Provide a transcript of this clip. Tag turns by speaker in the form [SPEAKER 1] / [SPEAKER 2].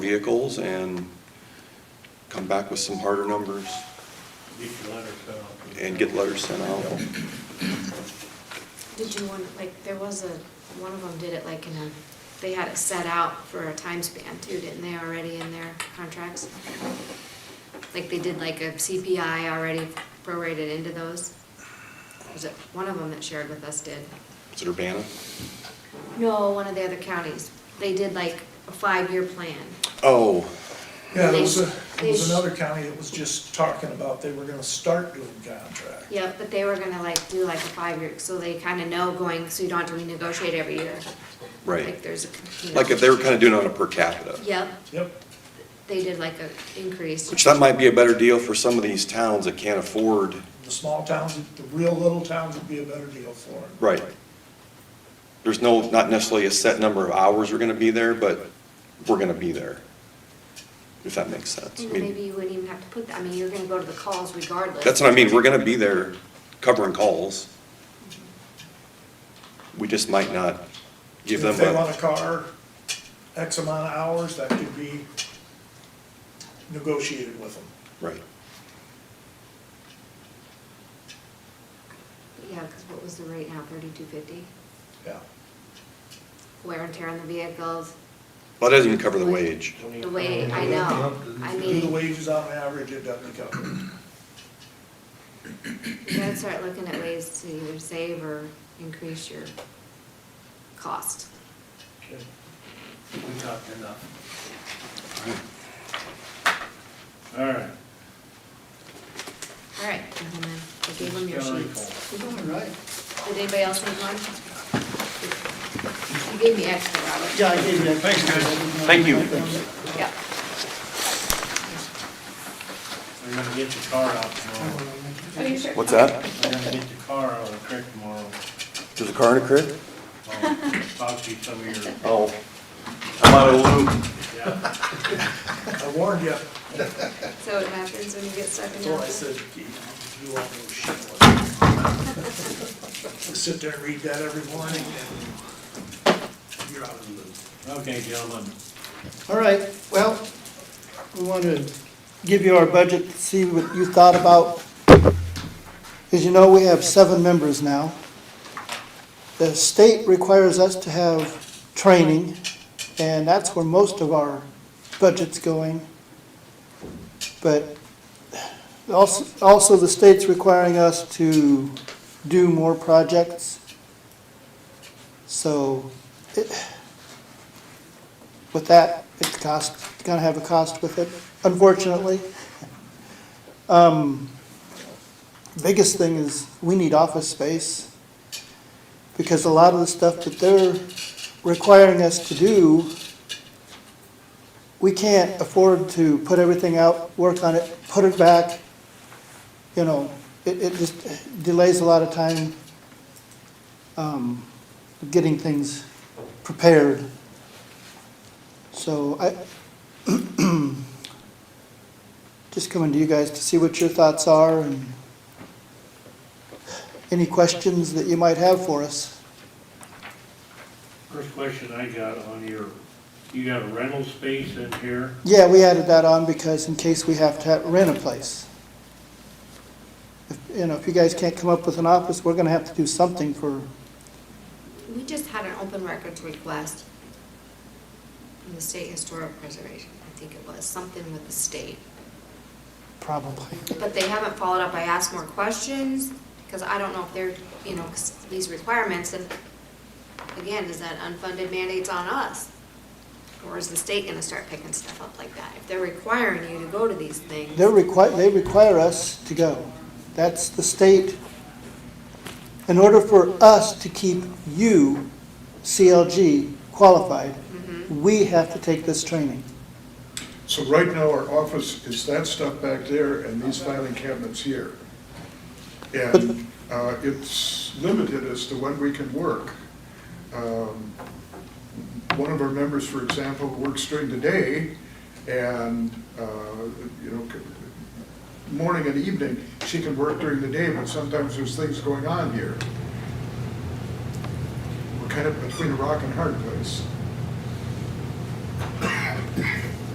[SPEAKER 1] vehicles and come back with some harder numbers
[SPEAKER 2] Get your letter sent out.
[SPEAKER 1] and get letters sent out.
[SPEAKER 3] Did you want, like, there was a, one of them did it like in a, they had it set out for a time span too, didn't they, already in their contracts? Like they did like a CPI already prorated into those? Was it, one of them that shared with us did?
[SPEAKER 1] Is it Urbana?
[SPEAKER 3] No, one of the other counties. They did like a five-year plan.
[SPEAKER 1] Oh,
[SPEAKER 4] Yeah, there was, a-
[SPEAKER 3] They-
[SPEAKER 4] there was another county that was just talking about they were gonna start doing contract.
[SPEAKER 3] Yep, but they were gonna like do like a five-year, so they kinda know going, so you don't have to renegotiate every year.
[SPEAKER 1] right.
[SPEAKER 3] Like there's a. you know.
[SPEAKER 1] Like if they were kind of doing it on a per capita.
[SPEAKER 3] Yep,
[SPEAKER 4] Yep,
[SPEAKER 3] they did like a increase.
[SPEAKER 1] Which that might be a better deal for some of these towns that can't afford,
[SPEAKER 4] the small towns, the real little towns would be a better deal for them.
[SPEAKER 1] right. There's no, not necessarily a set number of hours we're gonna be there, but we're gonna be there. If that makes sense. I
[SPEAKER 3] And
[SPEAKER 1] mean,
[SPEAKER 3] maybe you wouldn't even have to put that, I mean, you're gonna go to the calls regardless.
[SPEAKER 1] That's what I mean, we're gonna be there covering calls. We just might not give them
[SPEAKER 4] If they want
[SPEAKER 1] a,
[SPEAKER 4] a car, X amount of hours, that could be negotiated with them.
[SPEAKER 1] right.
[SPEAKER 3] Yeah, cause what was the rate now, thirty-two fifty?
[SPEAKER 4] Yeah,
[SPEAKER 3] Wear and tear on the vehicles,
[SPEAKER 1] Well, that doesn't even cover the wage.
[SPEAKER 3] the way, I know, I
[SPEAKER 4] do the
[SPEAKER 3] mean,
[SPEAKER 4] wages on average, it doesn't cover. it.
[SPEAKER 3] you gotta start looking at ways to either save or increase your cost.
[SPEAKER 2] Okay. We talked enough. All right.
[SPEAKER 3] All right, and then I gave them your
[SPEAKER 2] Kelly
[SPEAKER 3] sheets.
[SPEAKER 5] All right.
[SPEAKER 3] Did anybody else need one? You gave me extra, Robert.
[SPEAKER 5] Yeah, I gave you.
[SPEAKER 2] Thanks, guys.
[SPEAKER 1] Thank you.
[SPEAKER 3] Yeah.
[SPEAKER 2] We're gonna get your car out tomorrow.
[SPEAKER 3] Are you sure?
[SPEAKER 1] What's that?
[SPEAKER 2] We're gonna get your car out of the creek tomorrow.
[SPEAKER 1] There's a car in a crib?
[SPEAKER 2] I'll Talk to you some of your,
[SPEAKER 1] Oh. I'm out of loop.
[SPEAKER 2] yeah.
[SPEAKER 4] I warned you,
[SPEAKER 3] So it happens when you get stuck in
[SPEAKER 4] that's why I
[SPEAKER 3] traffic.
[SPEAKER 4] said, you won't know shit. I Sit there and read that every morning, and you're out of the loop.
[SPEAKER 2] Okay, gentlemen.
[SPEAKER 5] All right, well, we want to give you our budget, see what you thought about. As you know, we have seven members now. The state requires us to have training, and that's where most of our budget's going. But also, also the state's requiring us to do more projects. So with that, it's cost, it's gonna have a cost with it, unfortunately. Um, Biggest thing is, we need office space, because a lot of the stuff that they're requiring us to do, we can't afford to put everything out, work on it, put it back, you know, it, it just delays a lot of time, um, getting things prepared. So I, just coming to you guys to see what your thoughts are and any questions that you might have for us.
[SPEAKER 2] First question I got on your, you got a rental space in here?
[SPEAKER 5] Yeah, we added that on because in case we have to ha- rent a place. If- You know, if you guys can't come up with an office, we're gonna have to do something for,
[SPEAKER 3] We just had an open records request from the State Historic Preservation, I think it was, something with the state.
[SPEAKER 5] probably.
[SPEAKER 3] But they haven't followed up, I asked more questions, because I don't know if they're, you know, 'cause these requirements, and again, is that unfunded mandates on us? Or is the state gonna start picking stuff up like that? If they're requiring you to go to these things,
[SPEAKER 5] They're require, they require us to go. That's the state. In order for us to keep you, CLG, qualified, we have to take this training.
[SPEAKER 6] So right now, our office is that stuff back there and these filing cabinets here. And uh, it's limited as to when we can work. Um, One of our members, for example, works during the day and, uh, you know, c- morning and evening, she can work during the day, but sometimes there's things going on here. We're kind of between a rock and a hard place.